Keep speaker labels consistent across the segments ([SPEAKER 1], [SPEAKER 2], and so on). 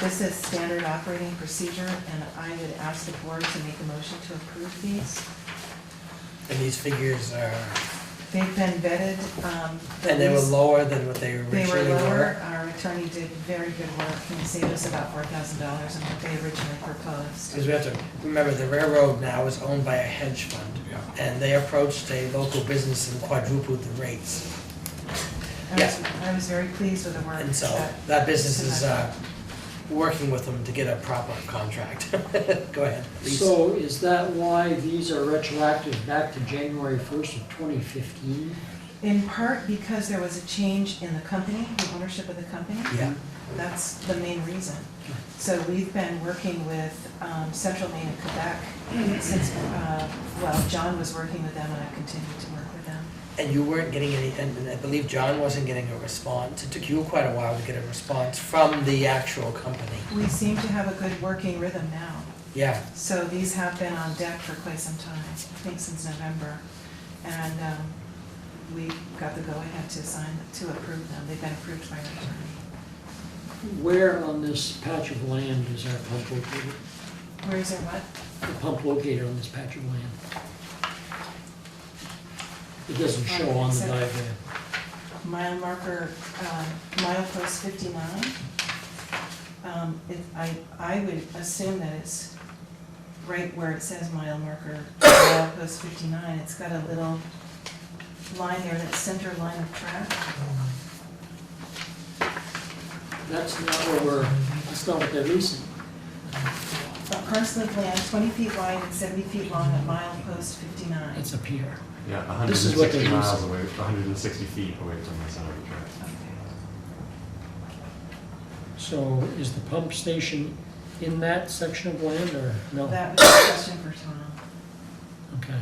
[SPEAKER 1] This is standard operating procedure, and I would ask the board to make a motion to approve these.
[SPEAKER 2] And these figures are,
[SPEAKER 1] They've been vetted. um, the
[SPEAKER 2] and they were
[SPEAKER 1] least-
[SPEAKER 2] lower than what they
[SPEAKER 1] They were
[SPEAKER 2] originally
[SPEAKER 1] lower.
[SPEAKER 2] were.
[SPEAKER 1] Our attorney did very good work and saved us about four thousand dollars on what they originally proposed.
[SPEAKER 2] Because we have to remember, the railroad now is owned by a hedge fund.
[SPEAKER 3] Yeah.
[SPEAKER 2] And they approached a local business and quadrupled the rates.
[SPEAKER 1] I was, I was very pleased with the work.
[SPEAKER 2] And so
[SPEAKER 1] that-
[SPEAKER 2] that business is uh, working with them to get a proper contract. Go ahead, please.
[SPEAKER 4] So is that why these are retroactive back to January 1st of 2015?
[SPEAKER 1] In part because there was a change in the company, the ownership of the company.
[SPEAKER 2] Yeah.
[SPEAKER 1] That's the main reason. So we've been working with um, Central Maine and Quebec since, uh, well, John was working with them and I continued to work with them.
[SPEAKER 2] And you weren't getting any, and I believe John wasn't getting a response. It took you quite a while to get a response from the actual company.
[SPEAKER 1] We seem to have a good working rhythm now.
[SPEAKER 2] Yeah,
[SPEAKER 1] So these have been on deck for quite some time, I think since November. And um, we got the go-ahead to sign, to approve them. They've been approved by our attorney.
[SPEAKER 4] Where on this patch of land is our pump located?
[SPEAKER 1] Where is it, what?
[SPEAKER 4] The pump located on this patch of land? It doesn't show on the diagram.
[SPEAKER 1] Mile marker, um, mile post 59. Um, If, I, I would assume that it's right where it says mile marker, mile post 59. It's got a little line there, that center line of track.
[SPEAKER 4] That's not what we're, that's not what they're leasing.
[SPEAKER 1] A parcel of land 20 feet wide and 70 feet long at mile post 59.
[SPEAKER 4] It's a pier.
[SPEAKER 3] Yeah,
[SPEAKER 4] This is what they
[SPEAKER 3] 160
[SPEAKER 4] use.
[SPEAKER 3] miles away, 160 feet away from the center of the track.
[SPEAKER 1] Okay.
[SPEAKER 4] So is the pump station in that section of land or no?
[SPEAKER 1] That was a question for Tom.
[SPEAKER 4] Okay.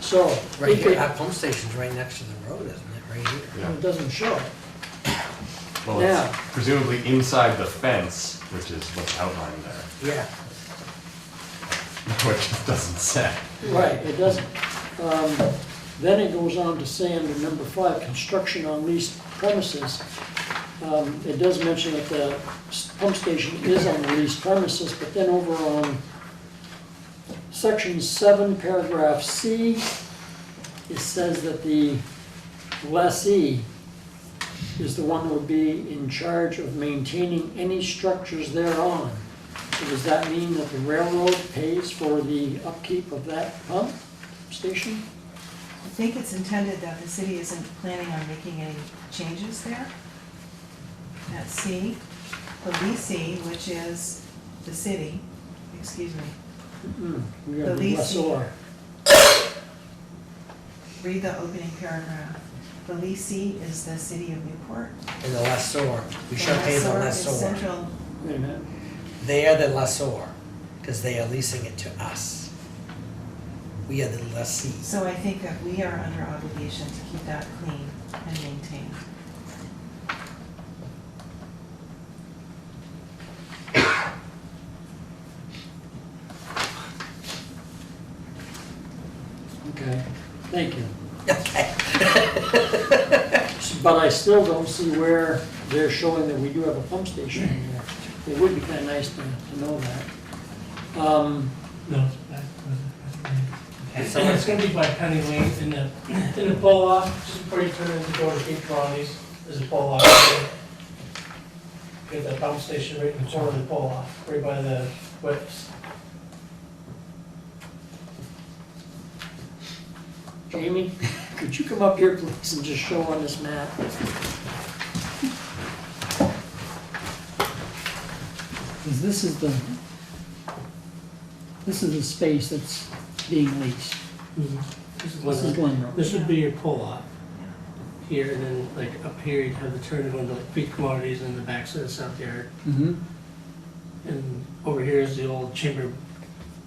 [SPEAKER 4] So.
[SPEAKER 2] right
[SPEAKER 4] if
[SPEAKER 2] here,
[SPEAKER 4] it-
[SPEAKER 2] our pump station's right next to the road, isn't it, right here?
[SPEAKER 3] Yeah.
[SPEAKER 4] It doesn't show.
[SPEAKER 3] Well, it's
[SPEAKER 4] Yeah.
[SPEAKER 3] presumably inside the fence, which is what's outlined there,
[SPEAKER 2] Yeah,
[SPEAKER 3] which it doesn't say.
[SPEAKER 4] Right, it doesn't. Um, Then it goes on to say under number five, construction on leased premises. Um, It does mention that the s- pump station is on the leased premises, but then over on section seven, paragraph C, it says that the E, lessee is the one who would be in charge of maintaining any structures thereon. So Does that mean that the railroad pays for the upkeep of that pump station?
[SPEAKER 1] I think it's intended that the city isn't planning on making any changes there. At C, the leasee, which is the city, excuse me,
[SPEAKER 4] Mm-mm, We are
[SPEAKER 1] The
[SPEAKER 4] the
[SPEAKER 1] leasing.
[SPEAKER 4] lessor.
[SPEAKER 1] read the opening paragraph. The leasee is the city of Newport.
[SPEAKER 2] and the lessor, we shall
[SPEAKER 1] The
[SPEAKER 2] pay the
[SPEAKER 1] is
[SPEAKER 2] lessor.
[SPEAKER 1] Central,
[SPEAKER 4] Wait a minute.
[SPEAKER 2] They are the lessor, because they are leasing it to us. We are the lessees.
[SPEAKER 1] so I think that we are under obligation to keep that clean and maintained.
[SPEAKER 4] Okay, thank you.
[SPEAKER 2] Okay.
[SPEAKER 4] S- But I still don't see where they're showing that we do have a pump station in there. It would be kind of nice to, to know that. Um,
[SPEAKER 5] No, it's back.
[SPEAKER 2] It's
[SPEAKER 5] And it's gonna be by Penny Lane in the, in the pull off, just before you turn in to go to Cape Colonies, there's a pull off. there. Get that pump station right in the corner of the pull off, right by the whips.
[SPEAKER 4] Jamie, could you come up here, please, and just show on this map? Because this is the, this is the space that's being leased. This is Glen Road.
[SPEAKER 5] This would be your pull off. Here, and then like up here, you'd have the turn to go into like feed commodities and the backside of South Yard.
[SPEAKER 4] Mm-hmm.
[SPEAKER 5] And over here is the old chamber.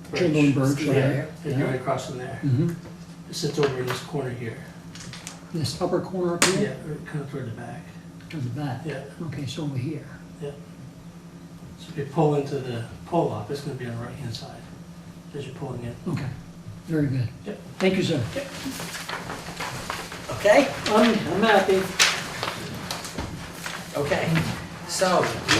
[SPEAKER 5] Birch.
[SPEAKER 4] Chamberlain Birch,
[SPEAKER 5] Yeah,
[SPEAKER 4] right.
[SPEAKER 5] And you're right across from there.
[SPEAKER 4] Mm-hmm.
[SPEAKER 5] It sits over in this corner here.
[SPEAKER 4] This upper corner up
[SPEAKER 5] Yeah,
[SPEAKER 4] here,
[SPEAKER 5] right kind of toward the back.
[SPEAKER 4] to the back.
[SPEAKER 5] Yeah.
[SPEAKER 4] Okay, so over here.
[SPEAKER 5] So if you pull into the pull up, it's gonna be on the right hand side as you're pulling in.
[SPEAKER 4] Okay, very good.
[SPEAKER 5] Yep.
[SPEAKER 4] Thank you, sir.
[SPEAKER 2] Okay,
[SPEAKER 4] I'm, I'm happy.
[SPEAKER 2] okay. So,